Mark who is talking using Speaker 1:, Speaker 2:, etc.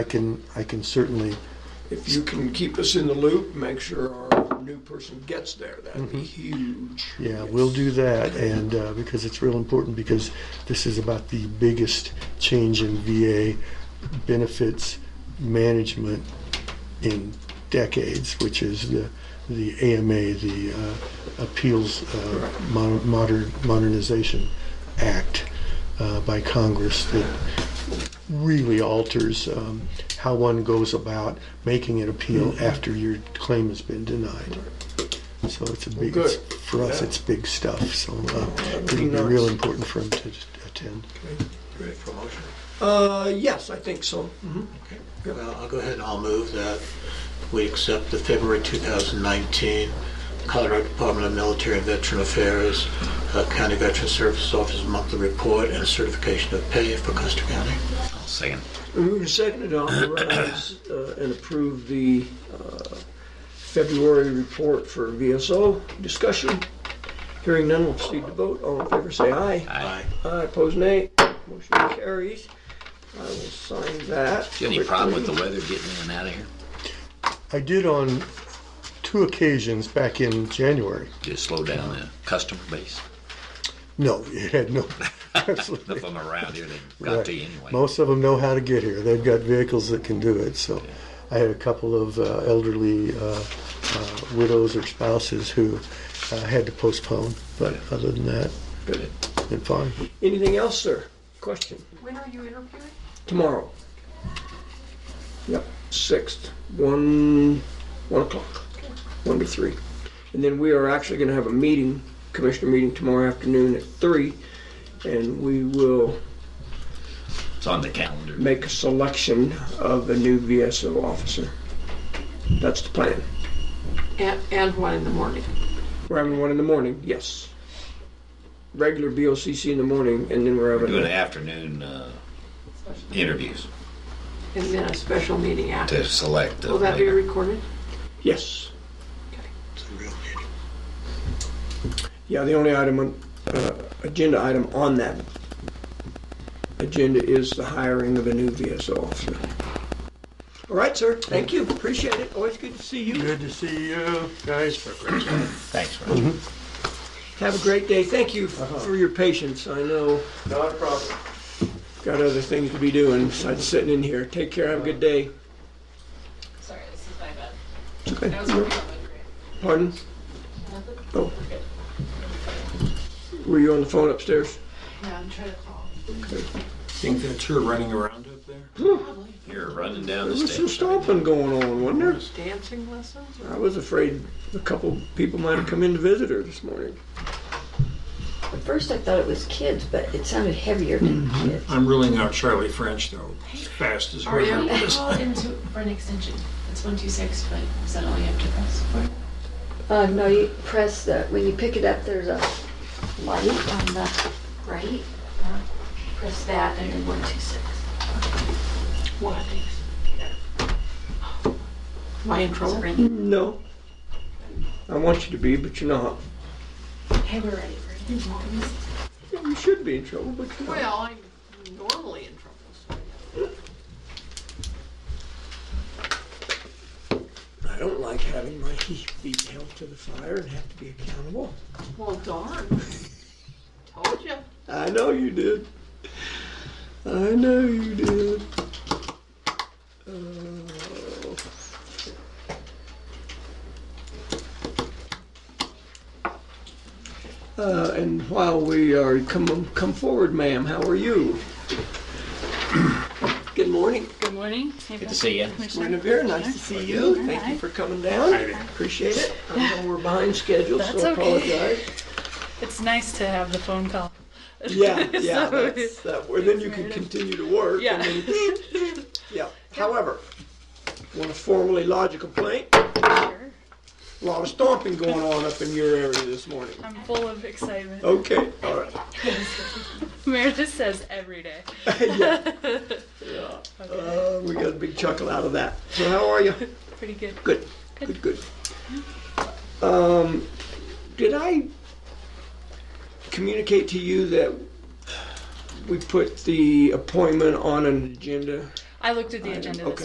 Speaker 1: I can, I can certainly,
Speaker 2: If you can keep us in the loop, make sure our new person gets there, that'd be huge.
Speaker 1: Mm-hmm. yeah, we'll do that. And uh, because it's real important, because this is about the biggest change in VA benefits management in decades, which is the, the AMA, the uh, Appeals uh, Mon- Modern Modernization Act uh, by Congress that really alters um, how one goes about making an appeal
Speaker 2: Mm-hmm.
Speaker 1: after your claim has been denied. So it's a big,
Speaker 2: Well,
Speaker 1: it's,
Speaker 2: good.
Speaker 1: for us,
Speaker 2: Yeah.
Speaker 1: it's big stuff. So uh, it'll be
Speaker 2: be
Speaker 1: real
Speaker 2: nice.
Speaker 1: important for him to attend.
Speaker 3: Ready for a motion?
Speaker 2: Uh, yes, I think so. Mhm.
Speaker 3: Okay. Well, I'll go ahead and I'll move that we accept the February 2019 Colorado Department of Military and Veteran Affairs uh, County Veteran Service Office Monthly Report and Certification of Pay for Custer County.
Speaker 4: I'll second.
Speaker 2: We move to second to authorize uh, and approve the uh, February report for VSO. Discussion? Hearing none, we'll proceed to vote. All in favor, say aye.
Speaker 3: Aye.
Speaker 2: Aye, opposed nay. Motion carries. I will sign that.
Speaker 4: Do you have any problem with the
Speaker 2: quickly.
Speaker 4: weather getting in and out of here?
Speaker 1: I did on two occasions back in January.
Speaker 4: Just slow down the customer base.
Speaker 1: No, it had no.
Speaker 4: None of
Speaker 1: absolutely.
Speaker 4: them around here, they got
Speaker 1: Right.
Speaker 4: to you anyway.
Speaker 1: Most of them know how to get here. They've got vehicles that can do it. So I had a couple of uh, elderly uh, uh, widows or spouses who uh, had to postpone. But other than that,
Speaker 4: Good.
Speaker 1: been fine.
Speaker 2: Anything else, sir? Question?
Speaker 5: When are you interviewing?
Speaker 2: Tomorrow. Yep, sixth, one, one o'clock, one to three. And then we are actually gonna have a meeting, commissioner meeting tomorrow afternoon at three. And we will
Speaker 4: It's on the calendar.
Speaker 2: make a selection of the new VSO officer. That's the plan.
Speaker 5: And, and one in the morning.
Speaker 2: We're having one in the morning, yes. Regular BOCC in the morning and then we're having.
Speaker 4: Doing afternoon uh, interviews
Speaker 5: And then a special meeting after.
Speaker 4: to select. uh, the
Speaker 5: Will that be
Speaker 4: leader.
Speaker 5: recorded?
Speaker 2: Yes.
Speaker 3: It's a real meeting.
Speaker 2: Yeah, the only item, on- uh, agenda item on that agenda is the hiring of a new VSO officer. All right, sir, thank you, appreciate it, always good to see you.
Speaker 1: Good to see you guys.
Speaker 4: Thanks,
Speaker 1: Mm-hmm.
Speaker 4: Roger.
Speaker 2: Have a great day, thank you f- for your patience, I know,
Speaker 1: Uh-huh. Not a problem.
Speaker 2: got other things to be doing besides sitting in here. Take care, have a good day.
Speaker 6: Sorry, this is my bad.
Speaker 2: It's okay.
Speaker 6: I was working on my grant.
Speaker 2: Pardon? Oh. Were you on the phone upstairs?
Speaker 6: Yeah, I'm trying to call.
Speaker 3: Think that's her running around up there?
Speaker 4: You're running down
Speaker 2: There
Speaker 4: the
Speaker 2: was some
Speaker 4: stage.
Speaker 2: stomping going on, wasn't there?
Speaker 5: Dancing lessons or?
Speaker 2: I was afraid a couple people might have come in to visit her this morning.
Speaker 7: At first, I thought it was kids, but it sounded heavier than kids.
Speaker 3: I'm ruling out Charlie French though, as fast as
Speaker 5: Are
Speaker 3: her.
Speaker 5: you?
Speaker 6: Call into, for an extension. It's one two six, but is that all you have to press for?
Speaker 7: Uh, no, you press the, when you pick it up, there's a light on the right.
Speaker 5: Press that and then one, two, six. What? Am I in trouble?
Speaker 2: No. I want you to be, but you're not.
Speaker 6: Hey, we're ready for it.
Speaker 2: You should be in trouble, but you're not.
Speaker 5: Well, I'm normally in trouble, so.
Speaker 2: I don't like having my he- feet held to the fire and have to be accountable.
Speaker 5: Well, darn. Told you.
Speaker 2: I know you did. I know you did. Oh. Uh, and while we are come come forward, ma'am, how are you? Good morning.
Speaker 8: Good morning.
Speaker 4: Good to see you.
Speaker 2: Guinevere, nice to see you. Thank you for coming down. Appreciate it. I know we're behind schedule,
Speaker 8: That's
Speaker 2: so
Speaker 8: okay.
Speaker 2: apologize.
Speaker 8: It's nice to have the phone call.
Speaker 2: Yeah, yeah,
Speaker 8: So-
Speaker 2: that's, that, well, then you can continue to work.
Speaker 8: Yeah.
Speaker 2: and then- Yeah, however, want to formally lodge a complaint?
Speaker 8: Sure.
Speaker 2: A Lot of stomping going on up in your area this morning.
Speaker 8: I'm full of excitement.
Speaker 2: Okay, all right.
Speaker 8: Meredith says every day.
Speaker 2: Yeah,
Speaker 8: yeah. Okay.
Speaker 2: uh, we got a big chuckle out of that. So how are you?
Speaker 8: Pretty good.
Speaker 2: Good, good, good. Um, did I communicate to you that we put the appointment on an agenda?
Speaker 9: I looked at the
Speaker 8: Item,
Speaker 9: agenda this
Speaker 8: okay.